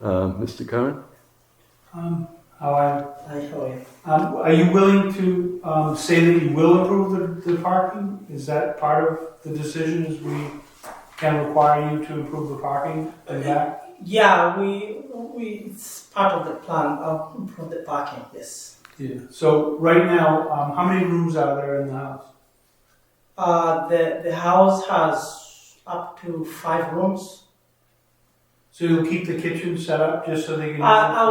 Uh, Mr. Curran? Um, how I, I saw it. um, are you willing to, um, say that you will approve the, the parking? Is that part of the decision, is we can require you to approve the parking in that? Yeah, we, we, it's part of the plan of for the parking, yes. Yeah. So right now, um, how many rooms are there in the house? Uh, the, the house has up to five rooms. So you'll keep the kitchen set up just so they can. Uh, I, I,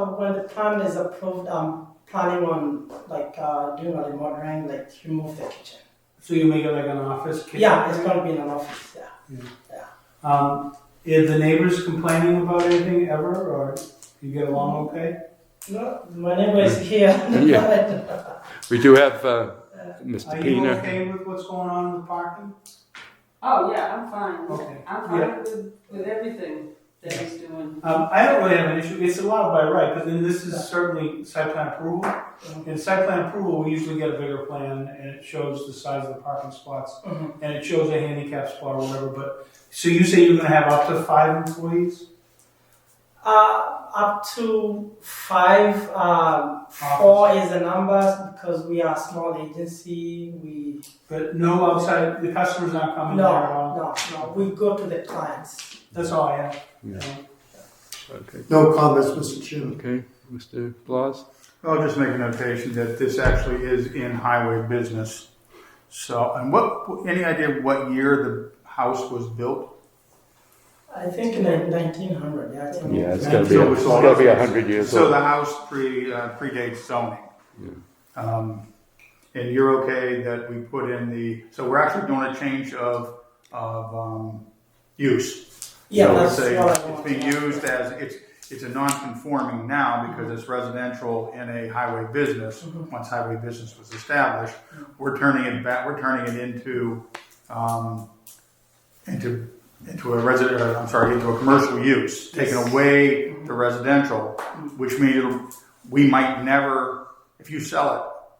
I, when the plan is approved, I'm planning on like uh, doing a remodeling, like remove the kitchen. So you make it like an office kitchen? Yeah, it's gonna be in an office, yeah. Um, is the neighbors complaining about anything ever, or you get along okay? No, my neighbor is here. Yeah. We do have uh, Mr. Are you Pina. okay with what's going on with parking? Oh, yeah, I'm fine. Okay. I'm Yeah. fine with, with everything that he's doing. Um, I don't really have an issue, it's allowed by right, but then this is certainly site plan approval. In site plan approval, we usually get a bigger plan, and it shows the size of the parking spots, Mhm. and it shows a handicap spot or whatever, but, so you say you're gonna have up to five employees? Uh, up to five. Um, four is the number because we are a small agency. We But no outside, the customer's not no, coming there at all? no, no. We go to the clients. That's all I have. Yeah. Okay. No comments, Mr. Chairman. Okay, Mr. Blas? I'll just make a notation that this actually is in highway business. So, and what, any idea what year the house was built? I think in nineteen hundred. Yeah, I think. Yeah, it's gotta going to be be, a- So it's going to be 100 years So the old. house pre, uh, predates zoning. Um, and you're okay that we put in the, so we're actually doing a change of, of, um, use. Yeah, So that's it's a- what I want. It's being used as, it's, it's a non-conforming now because it's residential in a highway business. Mhm. Once highway business was established, Mm. we're turning it back, we're turning it into, um, into, into a resident, uh, I'm sorry, into a commercial use, Yes. taking Mm-hmm. Mm. away the residential, which means it'll- we might never, if you sell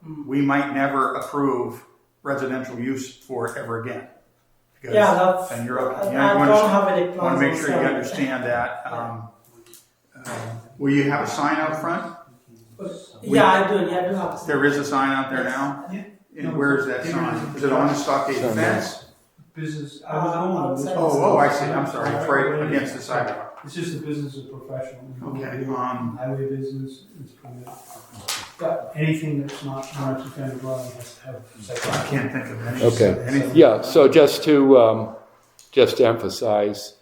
it, Mhm. we might never approve residential use for it ever again. Because- Yeah, that's. And you're, I, okay. you I know, you don't want have any to, plans. want to make sure on you selling. understand that. Um, uh, Will you have a sign out front? Yeah, I do. Yeah, I do have. a- There is a sign out there now? Yeah. And where is that sign? Is it on the stockade Sign. fence? Business, I was going with this. Oh, oh, I see, I'm sorry, it's right against the sidewalk. It's just the business of professional. Okay, um, Highway business is permitted. But anything that's not non-conforming dwelling has to have. I second. can't think of any. Okay. anything. Yeah, so just to, um, just to emphasize,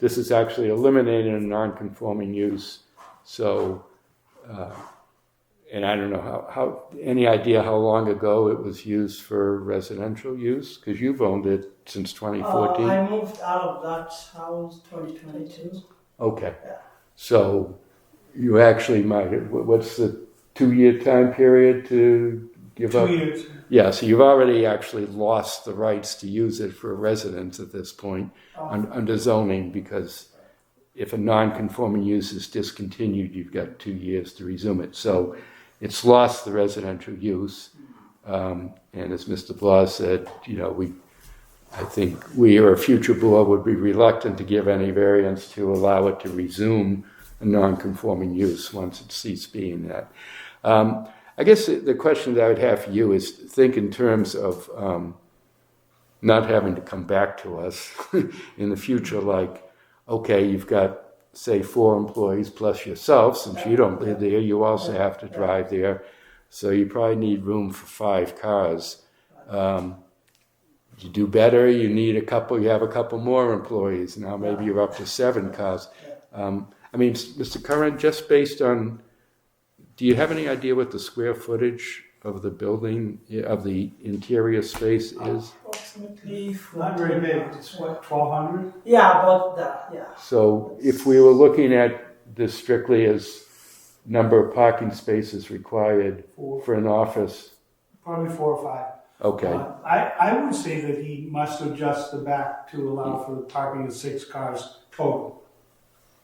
this is actually eliminating a non-conforming use. So, uh, and I don't know how, how, any idea how long ago it was used for residential use? Because you've owned it since Uh, 2014. I moved out of that house 2022. Okay. Yeah. So you actually might, wh- what's the two-year time period to give up? Two years. Yeah, so you've already actually lost the rights to use it for residents at this point un- under zoning because if a non-conforming use is discontinued, you've got two years to resume it. So it's lost the residential use. Um, and as Mr. Blas said, you know, we, I think we or a future board would be reluctant to give any variance to allow it to resume a non-conforming use once it ceased being that. Um, I guess the- the question that I would have for you is think in terms of um, not having to come back to us in the future, like, okay, you've got, say, four employees plus yourself, since you don't live there, you also have to drive there. So you probably need room for five cars. Um, you do better, you need a couple, you have a couple more employees. Now maybe you're up to seven cars. Um, I mean, s- Mr. Curran, just based on, do you have any idea what the square footage of the building, of the interior space is? Approximately. Not very 14 big, it's what, twelve hundred? Yeah, about that. Yeah. So if we were looking at this strictly as number of parking spaces required Four, for an office, probably four or five. okay, Uh, I, I would say that he must adjust the back to allow for the parking of six cars total.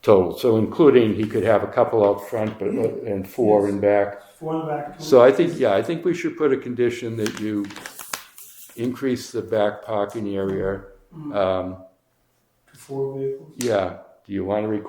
total. So including, he could have a couple out front, but, and four in back. Four in the back, two. So I think, yeah, I think we should put a condition that you increase the back parking area. Um, Four vehicles. yeah, do you want to require